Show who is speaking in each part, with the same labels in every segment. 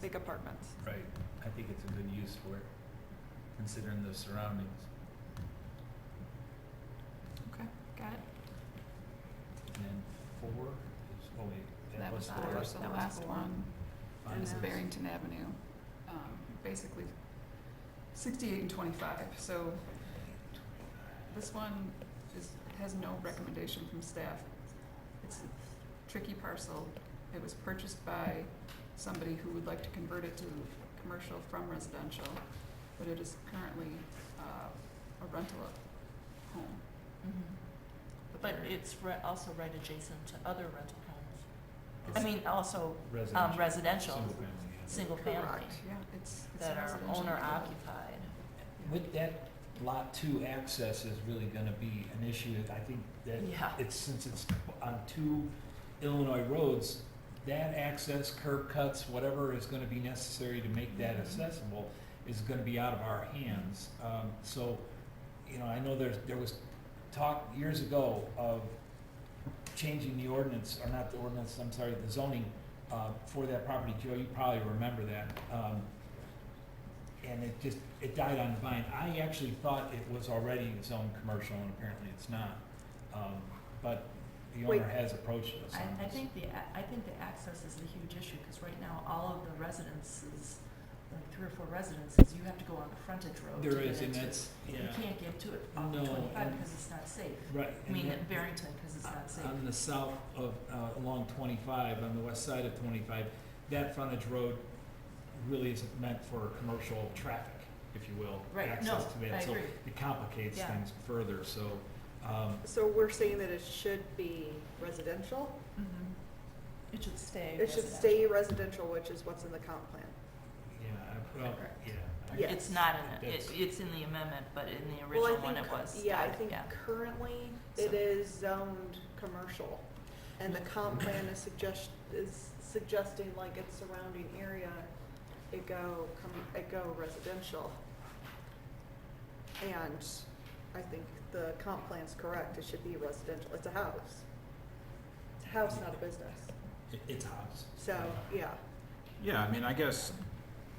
Speaker 1: big apartments.
Speaker 2: Right, I think it's a good use for it, considering the surroundings.
Speaker 1: Okay, got it.
Speaker 2: And then four is, oh wait, that
Speaker 3: That
Speaker 2: was
Speaker 3: was
Speaker 1: That
Speaker 2: four.
Speaker 1: was
Speaker 3: the last one,
Speaker 2: Five
Speaker 3: it was
Speaker 1: Yeah.
Speaker 3: Barrington Avenue, um, basically sixty-eight and twenty-five, so this one is, has no recommendation from staff. It's a tricky parcel, it was purchased by somebody who would like to convert it to commercial from residential, but it is currently, uh, a rental of home.
Speaker 4: Mm-hmm. But
Speaker 3: there-
Speaker 4: it's re- also right adjacent to other rental homes. I
Speaker 2: It's
Speaker 4: mean, also um,
Speaker 2: Residential,
Speaker 4: residential,
Speaker 2: single family, yeah.
Speaker 4: single family,
Speaker 3: Correct, yeah, it's, it's a
Speaker 4: that are
Speaker 3: residential
Speaker 4: owner
Speaker 3: neighborhood.
Speaker 4: occupied.
Speaker 2: With that, lot two access is really gonna be an issue, I think that
Speaker 4: Yeah,
Speaker 2: it's, since it's on two Illinois roads, that access, curb cuts, whatever is gonna be necessary to make that accessible is gonna be out of our hands. Um, so, you know, I know there's, there was talk years ago of changing the ordinance, or not the ordinance, I'm sorry, the zoning, uh, for that property. Joe, you probably remember that. Um, and it just, it died on the vine. I actually thought it was already zoned commercial, and apparently it's not. Um, but the
Speaker 4: Wait.
Speaker 2: owner has approached us on
Speaker 4: I, I
Speaker 2: this.
Speaker 4: think the, a- I think the access is a huge issue, because right now, all of the residences, like three or four residences, you have to go on the frontage road to
Speaker 2: There
Speaker 4: get into.
Speaker 2: is, and that's, yeah,
Speaker 4: You can't get to it on
Speaker 2: No,
Speaker 4: twenty-five,
Speaker 2: and-
Speaker 4: because it's not safe.
Speaker 2: right.
Speaker 4: I
Speaker 2: and
Speaker 4: mean,
Speaker 2: that- uh,
Speaker 4: at Barrington, because it's not safe.
Speaker 2: On the south of, uh, along twenty-five, on the west side of twenty-five, that frontage road really isn't meant for commercial traffic, if you will.
Speaker 4: Right, no,
Speaker 2: access to that.
Speaker 4: I
Speaker 2: So
Speaker 4: agree.
Speaker 2: It complicates
Speaker 4: Yeah.
Speaker 2: things further, so, um,
Speaker 1: So we're saying that it should be residential?
Speaker 4: Mhm. It should stay
Speaker 1: It should
Speaker 4: residential.
Speaker 1: stay residential, which is what's in the comp plan.
Speaker 2: yeah, I- well,
Speaker 3: Correct.
Speaker 2: yeah. I-
Speaker 1: Yeah.
Speaker 4: It's not in it,
Speaker 2: That's-
Speaker 4: it, it's in the amendment, but in the
Speaker 1: Well, I
Speaker 4: original one, it
Speaker 1: think-
Speaker 4: was.
Speaker 1: Yeah, I
Speaker 4: not,
Speaker 1: think currently it
Speaker 4: So-
Speaker 1: is zoned commercial. And the comp plan is suggest, is suggesting like its surrounding area, it go, com- it go residential. And I think the comp plan's correct, it should be residential, it's a house. It's a house, not a business,
Speaker 2: It- It's a house.
Speaker 1: so, yeah.
Speaker 5: Yeah, I mean, I guess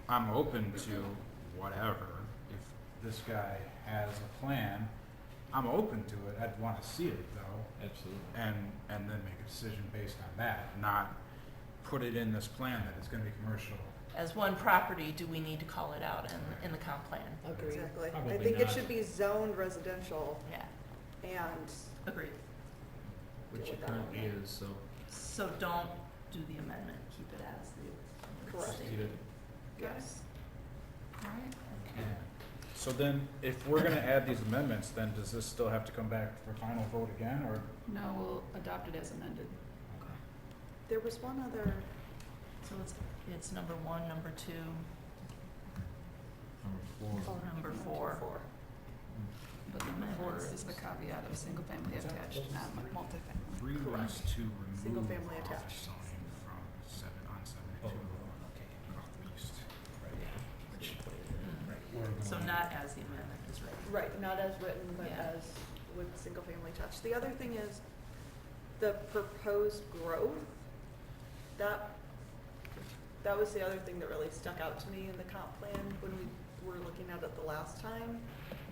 Speaker 5: I'm open to whatever. If this guy has a plan, I'm open to it. I'd want to see it though,
Speaker 2: Absolutely.
Speaker 5: and and then make a decision based on that, not put it in this plan that it's going to be commercial.
Speaker 4: As one property, do we need to call it out in, in the comp plan?
Speaker 2: Agreed.
Speaker 1: Exactly. I
Speaker 2: Probably
Speaker 1: think it
Speaker 2: not.
Speaker 1: should be zoned residential
Speaker 4: Yeah,
Speaker 1: and,
Speaker 4: agreed.
Speaker 2: Which
Speaker 1: Deal
Speaker 2: it
Speaker 1: with that one.
Speaker 2: currently is, so.
Speaker 4: So don't do the amendment, keep it as the.
Speaker 1: Correct.
Speaker 2: just do it.
Speaker 1: yes.
Speaker 3: Alright,
Speaker 2: Yeah.
Speaker 5: So then, if we're going to add these amendments, then does this still have to come back for final vote again, or?
Speaker 3: no, we'll adopt it as amended.
Speaker 1: There was one other,
Speaker 4: So it's, it's number one, number two,
Speaker 2: Number four.
Speaker 1: Oh,
Speaker 4: number four.
Speaker 3: But the four is the caveat of single-family
Speaker 2: Is that-
Speaker 3: attached, not mu- multifamily.
Speaker 5: Three was to remove
Speaker 1: Single family attached.
Speaker 5: zoning from seven on seven
Speaker 2: Oh,
Speaker 5: and
Speaker 2: okay.
Speaker 5: north east.
Speaker 2: Which-
Speaker 4: Mhm.
Speaker 2: right, we're going-
Speaker 4: So not as the amendment is written.
Speaker 1: Right, not as written, but
Speaker 4: Yeah.
Speaker 1: as with single family touch. The other thing is the proposed growth, that, that was the other thing that really stuck out to me in the comp plan when we were looking at it the last time.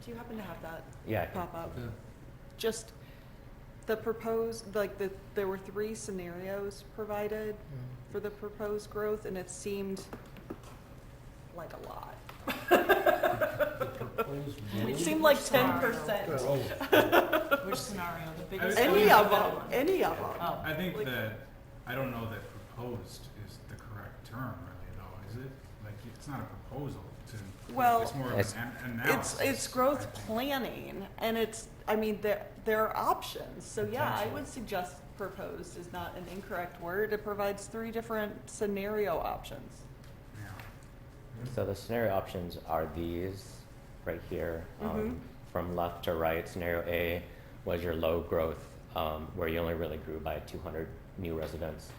Speaker 1: Do you happen to have that
Speaker 6: Yeah, I can-
Speaker 1: pop up?
Speaker 2: The-
Speaker 1: Just the proposed, like the, there were three scenarios provided for the proposed growth and it seemed like a lot.
Speaker 2: the proposed
Speaker 1: It
Speaker 2: road-
Speaker 1: seemed like ten
Speaker 4: scenario?
Speaker 1: percent.
Speaker 2: oh.
Speaker 4: Which scenario, the biggest?
Speaker 1: Any
Speaker 4: one or
Speaker 1: of
Speaker 4: the
Speaker 1: them,
Speaker 4: middle one?
Speaker 1: any of them.
Speaker 4: Oh.
Speaker 5: I think
Speaker 1: Like-
Speaker 5: that, I don't know that proposed is the correct term really though, is it? Like, it's not a proposal to,
Speaker 1: Well,
Speaker 5: it's more of
Speaker 6: It's-
Speaker 5: an an- analysis.
Speaker 1: It's, it's
Speaker 5: I
Speaker 1: growth
Speaker 5: think.
Speaker 1: planning, and it's, I mean, there, there are options, so yeah, I
Speaker 2: Potential.
Speaker 1: would suggest proposed is not an incorrect word, it provides three different scenario options.
Speaker 5: Yeah.
Speaker 6: So the scenario options are these right here. Um,
Speaker 1: Mhm.
Speaker 6: From left to right, scenario A was your low growth, um, where you only really grew by 200 new residents.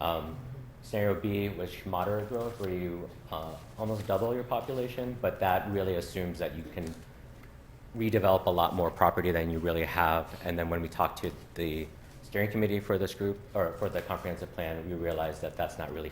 Speaker 6: Um, scenario B was moderate growth, where you uh, almost double your population, but that really assumes that you can redevelop a lot more property than you really have. And then when we talked to the steering committee for this group or for the comprehensive plan, we realized that that's not really